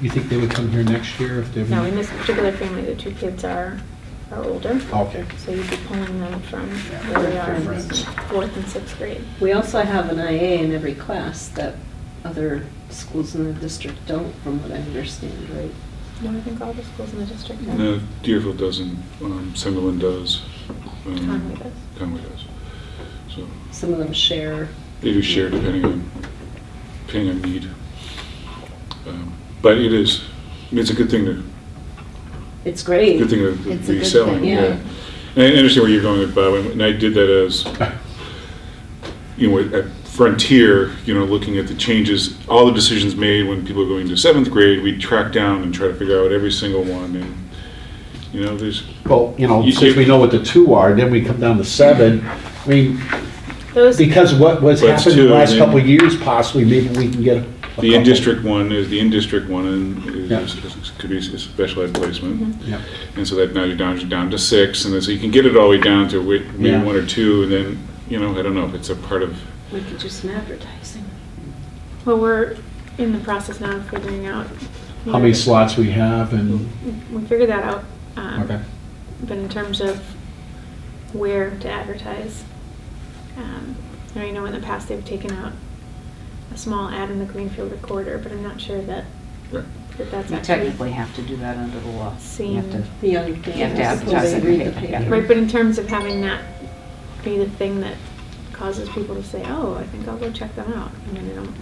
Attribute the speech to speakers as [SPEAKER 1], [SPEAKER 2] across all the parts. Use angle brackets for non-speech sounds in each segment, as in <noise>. [SPEAKER 1] You think they would come here next year if they?
[SPEAKER 2] Now, in this particular family, the two kids are, are older,
[SPEAKER 1] Okay.
[SPEAKER 2] so you'd be pulling them from
[SPEAKER 1] Yeah,
[SPEAKER 2] where they
[SPEAKER 1] they're
[SPEAKER 2] are in
[SPEAKER 1] friends.
[SPEAKER 2] fourth and sixth grade.
[SPEAKER 3] We also have an IA in every class that other schools in the district don't, from what I understand, right?
[SPEAKER 2] No, I think all the schools in the district have.
[SPEAKER 4] No, Deerfield doesn't, um, Sunderland does. um,
[SPEAKER 2] Conway does.
[SPEAKER 4] Conway does. So
[SPEAKER 3] Some of them share.
[SPEAKER 4] they do share depending on, depending on need. Um, But it is, I mean, it's a good thing to,
[SPEAKER 3] It's great.
[SPEAKER 4] good thing to
[SPEAKER 5] It's a
[SPEAKER 4] be
[SPEAKER 5] good
[SPEAKER 4] selling,
[SPEAKER 5] thing,
[SPEAKER 4] yeah.
[SPEAKER 3] yeah.
[SPEAKER 4] And I understand where you're going with Bob, and I did that as, you know, at Frontier, you know, looking at the changes, all the decisions made when people are going to seventh grade, we track down and try to figure out every single one, and, you know, there's,
[SPEAKER 1] Well, you know,
[SPEAKER 4] You-
[SPEAKER 1] since we know what the two are, then we come down to seven. I mean,
[SPEAKER 2] Those,
[SPEAKER 1] because what was
[SPEAKER 4] But it's
[SPEAKER 1] happened in the
[SPEAKER 4] two,
[SPEAKER 1] last
[SPEAKER 4] and-
[SPEAKER 1] couple of years possibly, maybe we can get a. a
[SPEAKER 4] The
[SPEAKER 1] couple.
[SPEAKER 4] in-district one is, the in-district one and
[SPEAKER 1] Yeah.
[SPEAKER 4] is, is- could be a special ed placement.
[SPEAKER 1] Yeah.
[SPEAKER 4] And so that now you're down, you're down to six, and then so you can get it all the way down to wi-
[SPEAKER 1] Yeah.
[SPEAKER 4] maybe one or two, and then, you know, I don't know if it's a part of,
[SPEAKER 3] We could do some advertising.
[SPEAKER 2] well, we're in the process now of figuring out.
[SPEAKER 1] How many slots we have and,
[SPEAKER 2] We figured that out. um,
[SPEAKER 1] okay.
[SPEAKER 2] But in terms of where to advertise, um, I know in the past they've taken out a small ad in the Greenfield Recorder, but I'm not sure that,
[SPEAKER 4] right.
[SPEAKER 2] that that's
[SPEAKER 5] You
[SPEAKER 2] actually.
[SPEAKER 5] technically have to do that under the law. You have to-
[SPEAKER 2] Seen.
[SPEAKER 3] The young
[SPEAKER 5] You have to
[SPEAKER 3] families, before
[SPEAKER 5] advertise
[SPEAKER 3] they
[SPEAKER 5] it.
[SPEAKER 3] read the
[SPEAKER 5] Yeah.
[SPEAKER 3] paper.
[SPEAKER 2] Right, but in terms of having that be the thing that causes people to say, oh, I think I'll go check them out. I mean, they don't,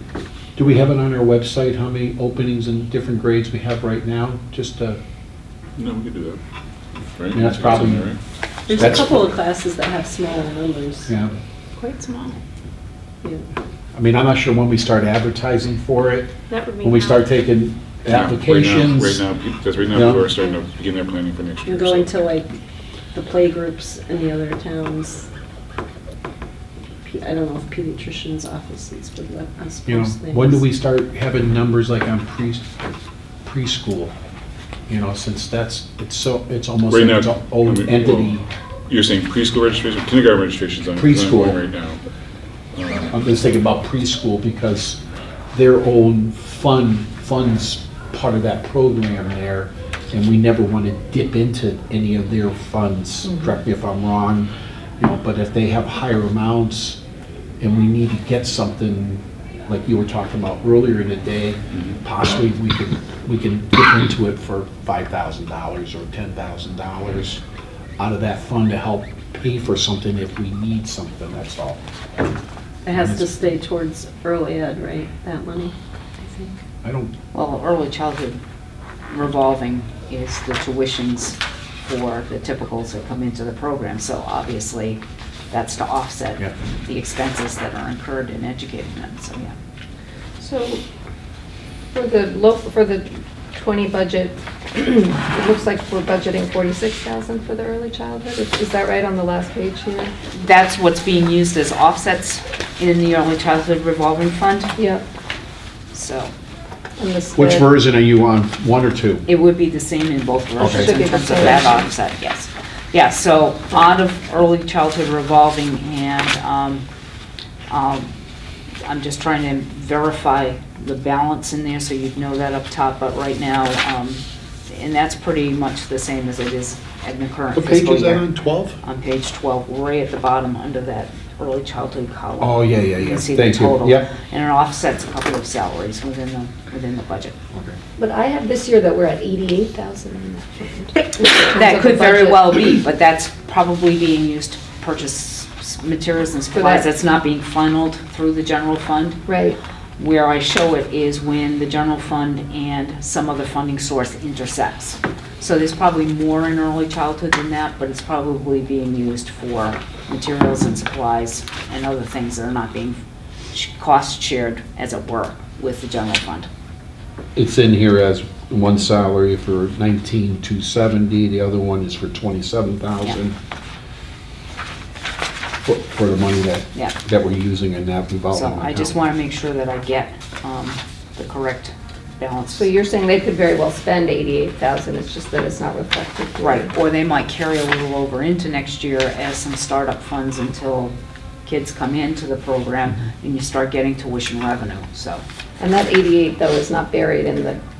[SPEAKER 1] Do we have it on our website, how many openings in different grades we have right now? Just, uh,
[SPEAKER 4] No, we could do that. Right?
[SPEAKER 1] Yeah, that's probably-
[SPEAKER 4] Something, right?
[SPEAKER 3] There's a
[SPEAKER 1] That's-
[SPEAKER 3] couple of classes that have smaller numbers.
[SPEAKER 1] yeah.
[SPEAKER 2] quite small.
[SPEAKER 3] Yeah.
[SPEAKER 1] I mean, I'm not sure when we start advertising for it,
[SPEAKER 2] That would be.
[SPEAKER 1] when we
[SPEAKER 2] now.
[SPEAKER 1] start taking
[SPEAKER 4] Yeah, right now-
[SPEAKER 1] applications.
[SPEAKER 4] Right now, peop- that's right now,
[SPEAKER 1] Yeah.
[SPEAKER 4] people are starting to begin their planning for next year.
[SPEAKER 3] And going
[SPEAKER 4] so-
[SPEAKER 3] to like the playgroups in the other towns. P- I don't know if pediatricians' offices would let us
[SPEAKER 1] You know,
[SPEAKER 3] post things.
[SPEAKER 1] when do we start having numbers like on pre, preschool? You know, since that's, it's so, it's almost
[SPEAKER 4] Right
[SPEAKER 1] like
[SPEAKER 4] now,
[SPEAKER 1] its
[SPEAKER 4] I
[SPEAKER 1] own
[SPEAKER 4] mean,
[SPEAKER 1] entity.
[SPEAKER 4] well, You're saying preschool registration, kindergarten registration's on.
[SPEAKER 1] Preschool.
[SPEAKER 4] on Right now. Um,
[SPEAKER 1] I'm just thinking about preschool because their own fund, funds part of that program there, and we never want to dip into any of their funds, correct me if I'm wrong, you know, but if they have higher amounts and we need to get something, like you were talking about earlier in the day, possibly we could, we can dip into it for five thousand dollars or ten thousand dollars out of that fund to help pay for something if we need something, that's all.
[SPEAKER 3] It has to stay towards early ed, right, that money, I think.
[SPEAKER 1] I don't
[SPEAKER 5] Well, early childhood revolving is the tuitions for the typicals that come into the program. So obviously, that's to
[SPEAKER 1] Yeah.
[SPEAKER 5] offset the expenses that are incurred in educating them, so yeah.
[SPEAKER 6] So for the low, for the 20 budget, <clears throat> it looks like we're budgeting 46,000 for the early childhood. Is is that right on the last page here?
[SPEAKER 5] That's what's being used as offsets in the early childhood revolving fund,
[SPEAKER 6] Yep.
[SPEAKER 5] so
[SPEAKER 6] and the
[SPEAKER 1] Which
[SPEAKER 6] split.
[SPEAKER 1] version are you on, one or two?
[SPEAKER 5] it would be the same in both versions
[SPEAKER 6] Should
[SPEAKER 5] in
[SPEAKER 6] be the
[SPEAKER 5] terms of
[SPEAKER 6] same.
[SPEAKER 5] that offset, yes. Yeah, so out of early childhood revolving and, um, um, I'm just trying to verify the balance in there so you'd know that up top, but right now, um, and that's pretty much the same as it is in the current
[SPEAKER 1] What
[SPEAKER 5] fiscal
[SPEAKER 1] page is
[SPEAKER 5] year.
[SPEAKER 1] that on, 12?
[SPEAKER 5] on page 12, right at the bottom under that early childhood column.
[SPEAKER 1] Oh, yeah, yeah,
[SPEAKER 5] You
[SPEAKER 1] yeah.
[SPEAKER 5] can see the
[SPEAKER 1] Thank you.
[SPEAKER 5] total.
[SPEAKER 1] Yep.
[SPEAKER 5] And it offsets a couple of salaries within the, within the budget.
[SPEAKER 7] But I have this year that we're at 88,000 in that
[SPEAKER 5] <laughs>
[SPEAKER 7] fund.
[SPEAKER 5] That
[SPEAKER 6] of
[SPEAKER 5] could
[SPEAKER 6] the
[SPEAKER 5] very
[SPEAKER 6] budget.
[SPEAKER 5] well be, but that's probably being used to purchase s- materials and supplies.
[SPEAKER 6] that-
[SPEAKER 5] That's not being funneled through the general fund.
[SPEAKER 6] Right.
[SPEAKER 5] Where I show it is when the general fund and some other funding source intersects. So there's probably more in early childhood than that, but it's probably being used for materials and supplies and other things that are not being sh- cost shared, as it were, with the general fund.
[SPEAKER 1] It's in here as one salary for 19,270, the other one is for 27,000. For for the money that,
[SPEAKER 5] Yeah.
[SPEAKER 1] that we're using in that revolving
[SPEAKER 5] So
[SPEAKER 1] account.
[SPEAKER 5] I just want to make sure that I get um, the correct balance.
[SPEAKER 6] So you're saying they could very well spend 88,000, it's just that it's not reflected here.
[SPEAKER 5] Right, or they might carry a little over into next year as some startup funds until kids come into the program and you start getting tuition revenue, so.
[SPEAKER 6] And that 88, though, is not buried in the